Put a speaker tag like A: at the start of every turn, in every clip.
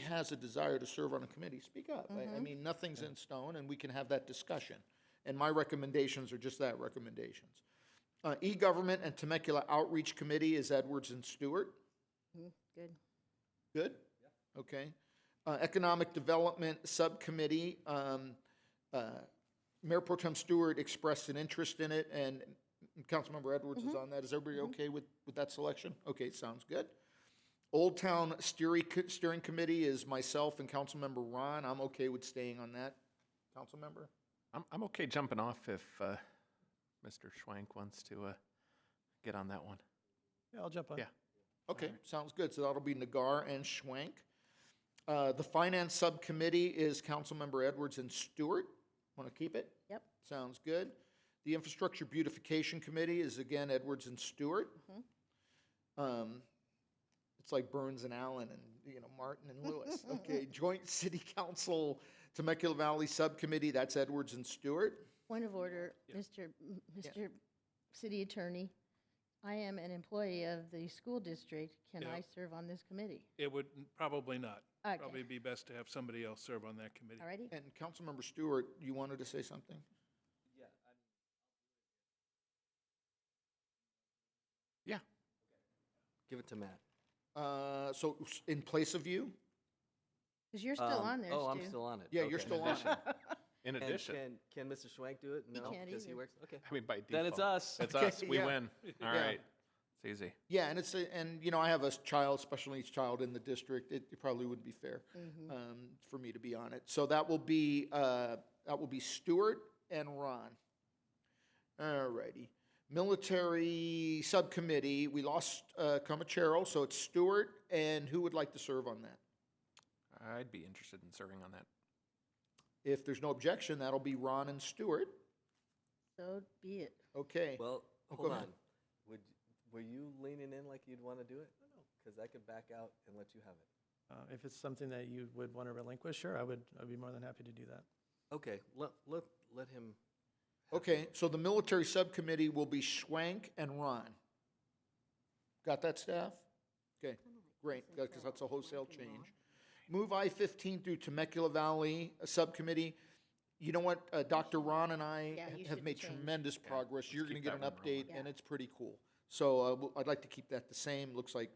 A: has a desire to serve on a committee, speak up. I, I mean, nothing's in stone, and we can have that discussion. And my recommendations are just that, recommendations. Uh, E-Government and Temecula Outreach Committee is Edwards and Stewart.
B: Good.
A: Good? Okay. Uh, Economic Development Subcommittee, um, uh, Mayor Pro Tem Stewart expressed an interest in it, and Councilmember Edwards is on that. Is everybody okay with, with that selection? Okay, sounds good. Old Town Steering, Co- Steering Committee is myself and Councilmember Ron. I'm okay with staying on that. Councilmember?
C: I'm, I'm okay jumping off if uh, Mr. Schwank wants to uh, get on that one.
D: Yeah, I'll jump on.
C: Yeah.
A: Okay, sounds good. So that'll be Nagar and Schwank. Uh, The Finance Subcommittee is Councilmember Edwards and Stewart. Want to keep it?
B: Yep.
A: Sounds good. The Infrastructure Beautification Committee is again Edwards and Stewart. Um, It's like Burns and Allen and, you know, Martin and Lewis. Okay, Joint City Council Temecula Valley Subcommittee, that's Edwards and Stewart.
B: Point of order, Mr. M- Mr. City Attorney, I am an employee of the school district. Can
E: Yeah.
B: I serve on this committee?
E: It would, probably not.
B: Okay.
E: Probably be best to have somebody else serve on that committee.
B: Alrighty?
A: And Councilmember Stewart, you wanted to say something?
C: Yeah.
F: Give it to Matt.
A: Uh, So s- in place of you?
B: Because you're still
F: Um,
B: on there, Stu.
F: Oh, I'm still on it.
A: Yeah, you're
F: Okay.
A: still on. it.
C: In
F: And
C: addition,
F: Can, can Mr. Schwank do it?
B: He
F: No,
B: can't
F: because he
B: either.
F: works, okay.
C: I mean, by default.
F: Then it's us.
C: It's
A: Okay,
C: us. We
A: yeah.
C: win. All right.
A: Yeah.
C: It's easy.
A: Yeah, and it's a, and you know I have a s- child, special needs child in the district. It, it probably wouldn't be fair um, for me to be on it. So that will be uh, that will be Stewart and Ron. All righty, military subcommittee. We lost uh, Comachero, so it's Stewart and who would like to serve on that?
C: I'd be interested in serving on that.
A: If there's no objection, that'll be Ron and Stewart.
B: So be it.
A: Okay.
F: Well,
A: Oh, go
F: hold
A: ahead.
F: on. Would, were you leaning in like you'd want to do it? Because I could back out and let you have it.
D: Uh, If it's something that you would want to relinquish, sure, I would, I'd be more than happy to do that.
F: Okay, let, let, let him.
A: Okay, so the military subcommittee will be Schwank and Ron. Got that, staff? Okay, great, because that's a wholesale change. Move I-15 through Temecula Valley uh, Subcommittee. You know what, uh, Dr. Ron and I
B: Yeah,
A: ha-
B: you
A: have
B: should
A: made
B: change.
A: tremendous progress.
C: let's
A: You're going to
C: keep
A: get an
C: that one rolling.
A: update, and it's pretty cool. So uh, we'll- I'd like to keep that the same. Looks like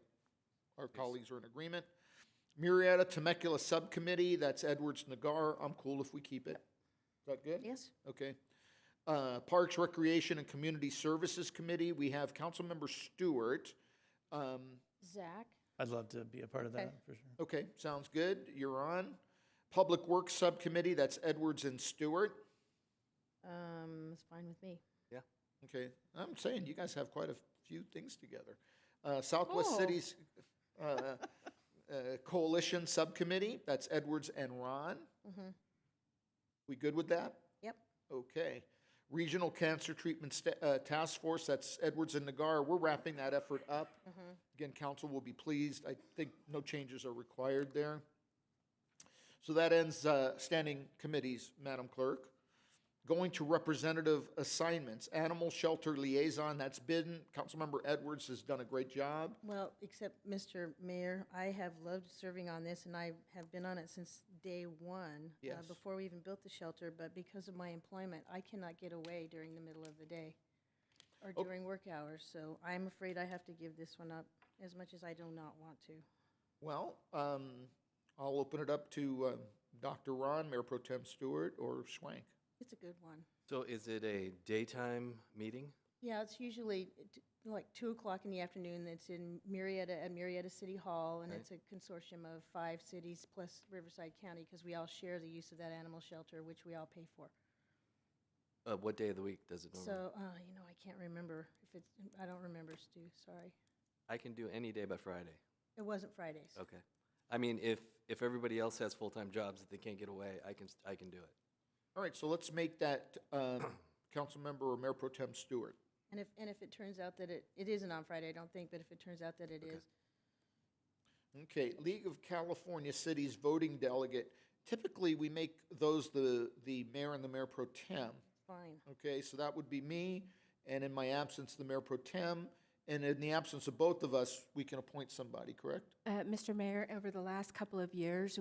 A: our colleagues are in agreement. Murrieta Temecula Subcommittee, that's Edwards Nagar. I'm cool if we keep it. Is that good?
B: Yes?
A: Okay. Uh, Parks, Recreation, and Community Services Committee, we have Councilmember Stewart. Um,
B: Zach?
D: I'd love to be a part of
B: Okay.
D: that, for sure.
A: Okay, sounds good, you're on. Public Works Subcommittee, that's Edwards and Stewart.
B: Um, it's fine with me.
A: Okay, I'm saying you guys have quite a few things together. Uh, Southwest
B: Oh.
A: Cities uh, uh, Coalition Subcommittee, that's Edwards and Ron. We good with that?
B: Yep.
A: Okay. Regional Cancer Treatment Sta- uh, Task Force, that's Edwards and Nagar. We're wrapping that effort up. Again, council will be pleased. I think no changes are required there. So that ends uh, standing committees, Madam Clerk. Going to representative assignments, Animal Shelter Liaison, that's been, Councilmember Edwards has done a great job.
B: Well, except, Mr. Mayor, I have loved serving on this, and I have been on it since day one. uh,
A: Yes.
B: Before we even built the shelter, but because of my employment, I cannot get away during the middle of the day or
A: Oh.
B: during work hours, so I'm afraid I have to give this one up as much as I do not want to.
A: Well, um, I'll open it up to uh, Dr. Ron, Mayor Pro Tem Stewart, or Schwank.
B: It's a good one.
F: So is it a daytime meeting?
B: Yeah, it's usually t- like two o'clock in the afternoon. It's in Marietta, at Marietta City Hall, and
F: Okay.
B: it's a consortium of five cities plus Riverside County, because we all share the use of that animal shelter, which we all pay for.
F: Uh, what day of the week does it normally?
B: So, uh, you know, I can't remember if it's, I don't remember, Stu, sorry.
F: I can do any day but Friday.
B: It wasn't Fridays.
F: Okay. I mean, if, if everybody else has full-time jobs that they can't get away, I can, I can do it.
A: All right, so let's make that um, Councilmember or Mayor Pro Tem Stewart.
B: And if, and if it turns out that it, it isn't on Friday, I don't think, but if it turns out that it is,
A: Okay, League of California Cities Voting Delegate. Typically, we make those the, the mayor and the mayor pro tem.
B: fine.
A: Okay, so that would be me, and in my absence, the mayor pro tem. And in the absence of both of us, we can appoint somebody, correct?
G: Uh, Mr. Mayor, over the last couple of years,